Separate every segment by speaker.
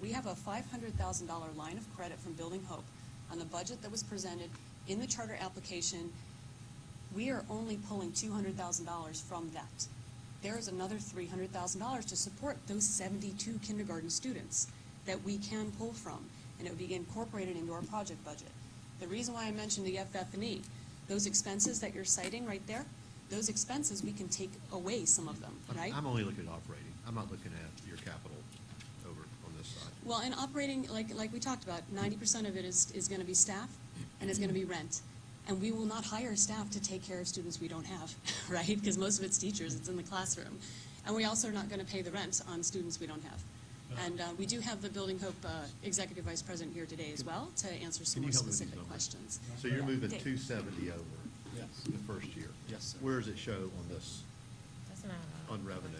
Speaker 1: we have a five hundred thousand dollar line of credit from Building Hope on the budget that was presented in the charter application. We are only pulling two hundred thousand dollars from that. There is another three hundred thousand dollars to support those seventy-two kindergarten students that we can pull from, and it would be incorporated into our project budget. The reason why I mentioned the FF&E, E, those expenses that you're citing right there, those expenses, we can take away some of them,
Speaker 2: I'm-
Speaker 1: right?
Speaker 2: I'm only looking at operating. I'm not looking at your capital over on this side.
Speaker 1: Well, and operating, like, like we talked about, ninety percent of it is, is gonna be staff and it's gonna be rent. And we will not hire staff to take care of students we don't have, right? Because most of it's teachers, it's in the classroom. And we also are not gonna pay the rent on students we don't have. And, uh, we do have the Building Hope, uh, Executive Vice President here today as well to answer some more
Speaker 2: Can you help me with these
Speaker 1: specific
Speaker 2: numbers?
Speaker 1: questions.
Speaker 2: So
Speaker 1: Yeah.
Speaker 2: you're moving
Speaker 1: Dave.
Speaker 2: two seventy over
Speaker 3: Yes.
Speaker 2: the first year?
Speaker 3: Yes, sir.
Speaker 2: Where does it show on this?
Speaker 4: That's not.
Speaker 2: On revenue.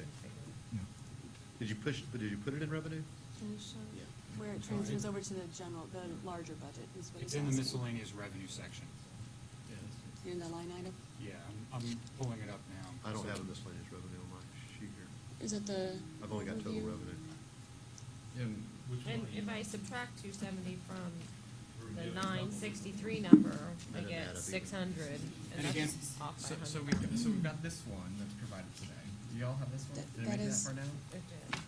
Speaker 2: Did you push, did you put it in revenue?
Speaker 1: Can you show
Speaker 3: Yeah.
Speaker 1: where it transfers over to the general, the larger budget is what he's
Speaker 5: It's in the
Speaker 1: asking.
Speaker 5: miscellaneous revenue section.
Speaker 1: In the line item?
Speaker 5: Yeah, I'm, I'm pulling it up now.
Speaker 2: I don't have a miscellaneous revenue on my sheet here.
Speaker 1: Is it the?
Speaker 2: I've only got total
Speaker 1: overview?
Speaker 2: revenue.
Speaker 3: And which one?
Speaker 4: And if I subtract two seventy from the
Speaker 3: Revenue.
Speaker 4: nine sixty-three number,
Speaker 2: That'd
Speaker 4: I
Speaker 2: add up
Speaker 4: get
Speaker 2: even.
Speaker 4: six hundred, and
Speaker 5: And again,
Speaker 4: that's off by
Speaker 6: So,
Speaker 4: a
Speaker 6: so
Speaker 4: hundred.
Speaker 6: we, so we've got this one that's provided today. Do y'all have this one?
Speaker 1: That-
Speaker 6: Did
Speaker 1: that
Speaker 6: I make that
Speaker 1: is-
Speaker 6: far down?
Speaker 4: It did.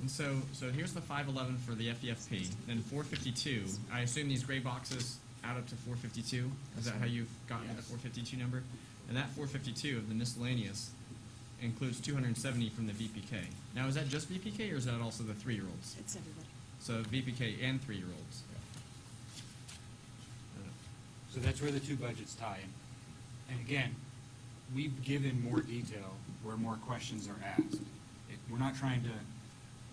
Speaker 6: And so, so here's the five eleven for the E FEFP, then four fifty-two. I assume these gray boxes add up to four fifty-two? Is that how you've gotten to the
Speaker 5: Yes.
Speaker 6: four fifty-two number? And that four fifty-two of the miscellaneous includes two hundred and seventy from the VPK. Now, is that just VPK or is that also the three-year-olds?
Speaker 1: It's everybody.
Speaker 6: So VPK and three-year-olds. Uh, I don't know.
Speaker 5: So that's where the two budgets tie in. And again, we've given more detail where more questions are asked. It- We're not trying to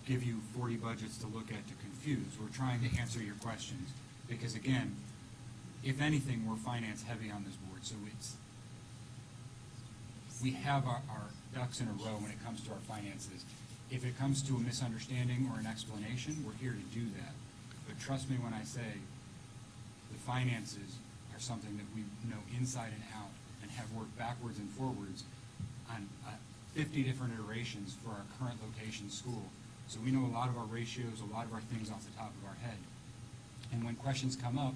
Speaker 5: give you forty budgets to look at to confuse. We're trying to answer your questions. Because again, if anything, we're finance heavy on this board, so it's, we have our, our ducks in a row when it comes to our finances. If it comes to a misunderstanding or an explanation, we're here to do that. But trust me when I say, the finances are something that we know inside and out and have worked backwards and forwards on uh, fifty different iterations for our current location school. So we know a lot of our ratios, a lot of our things off the top of our head. And when questions come up,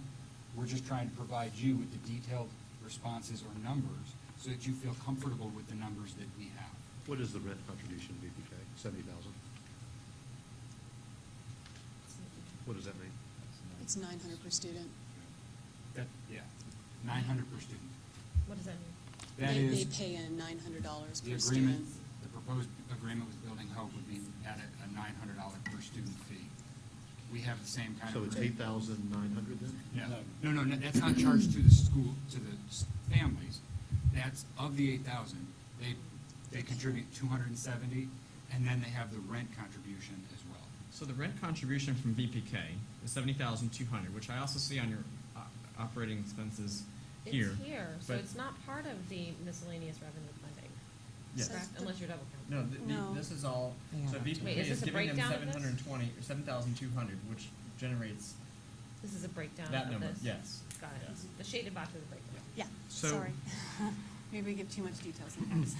Speaker 5: we're just trying to provide you with the detailed responses or numbers so that you feel comfortable with the numbers that we have.
Speaker 2: What is the rent contribution to VPK? Seventy thousand? What does that mean?
Speaker 1: It's nine hundred per student.
Speaker 5: That, yeah, nine hundred per student.
Speaker 4: What does that mean?
Speaker 5: That
Speaker 1: They-
Speaker 5: is.
Speaker 1: They pay in nine hundred dollars
Speaker 5: The
Speaker 1: per
Speaker 5: agreement,
Speaker 1: student.
Speaker 5: the proposed agreement with Building Hope would be at a- a nine hundred dollar per student fee. We have the same kind of.
Speaker 2: So it's eight
Speaker 5: agreement.
Speaker 2: thousand nine hundred then?
Speaker 5: No, no, no, no, that's not charged to the school, to the s- families. That's of the eight thousand, they, they contribute two hundred and seventy, and then they have the rent contribution as well.
Speaker 6: So the rent contribution from VPK is seventy thousand two hundred, which I also see on your uh, operating expenses here.
Speaker 4: It's here, so
Speaker 6: but-
Speaker 4: it's not part of the miscellaneous revenue funding.
Speaker 6: Yes.
Speaker 4: correct? Unless you're double counting.
Speaker 6: No, th- the-
Speaker 1: No.
Speaker 6: this is all. So VPK
Speaker 4: Wait, is
Speaker 6: is
Speaker 4: this a
Speaker 6: giving them
Speaker 4: breakdown of
Speaker 6: seven
Speaker 4: this?
Speaker 6: hundred and twenty or seven thousand two hundred, which generates.
Speaker 4: This is a breakdown of this.
Speaker 6: That number, yes.
Speaker 4: Got it.
Speaker 6: Yes.
Speaker 4: The shaded box is a breakdown.
Speaker 1: Yeah,
Speaker 6: So-
Speaker 1: sorry. Maybe we give too much detail sometimes.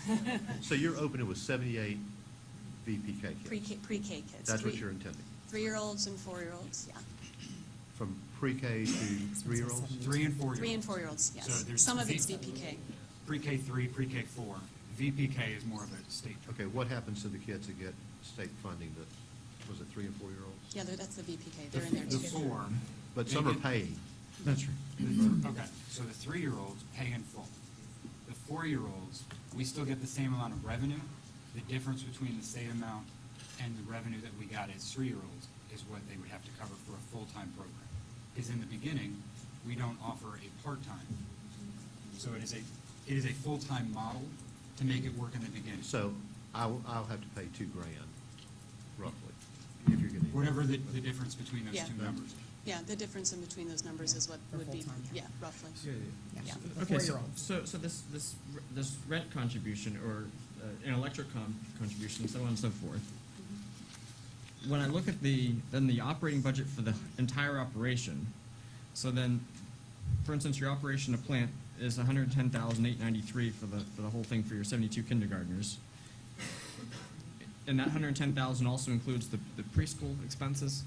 Speaker 2: So you're opening with seventy-eight VPK kids?
Speaker 1: Pre-K, pre-K kids.
Speaker 2: That's what
Speaker 1: three-
Speaker 2: you're intending?
Speaker 1: Three-year-olds and four-year-olds, yeah.
Speaker 2: From pre-K to three-year-olds?
Speaker 5: Three and four-year-olds.
Speaker 1: Three and four-year-olds, yes.
Speaker 5: So there's
Speaker 1: Some of it's
Speaker 5: V-
Speaker 1: VPK.
Speaker 5: Pre-K three, pre-K four. VPK is more of a state.
Speaker 2: Okay, what happens to the kids that get state funding that, was it three and four-year-olds?
Speaker 1: Yeah, they're- that's the VPK,
Speaker 5: The
Speaker 1: they're in there
Speaker 5: the
Speaker 1: too.
Speaker 5: four.
Speaker 2: But
Speaker 5: they
Speaker 2: some are
Speaker 5: get-
Speaker 2: paying.
Speaker 6: That's right.
Speaker 5: Okay, so the three-year-olds pay in full. The four-year-olds, we still get the same amount of revenue. The difference between the state amount and the revenue that we got as three-year-olds is what they would have to cover for a full-time program. Because in the beginning, we don't offer a part-time. So it is a, it is a full-time model to make it work in the beginning.
Speaker 2: So I'll, I'll have to pay two grand roughly, if you're getting.
Speaker 5: Whatever the, the difference between those
Speaker 1: Yeah.
Speaker 5: two numbers.
Speaker 1: Yeah, the difference in between those numbers is what would be, yeah, roughly. Yeah.
Speaker 6: Okay, so, so, so this, this, r- this rent contribution or uh, an electric con- contribution, so on and so forth.
Speaker 1: Mm-hmm.
Speaker 6: When I look at the, then the operating budget for the entire operation, so then, for instance, your operation of plant is hundred and ten thousand eight ninety-three for the, for the whole thing for your seventy-two kindergartners. and that hundred and ten thousand also includes the, the preschool expenses?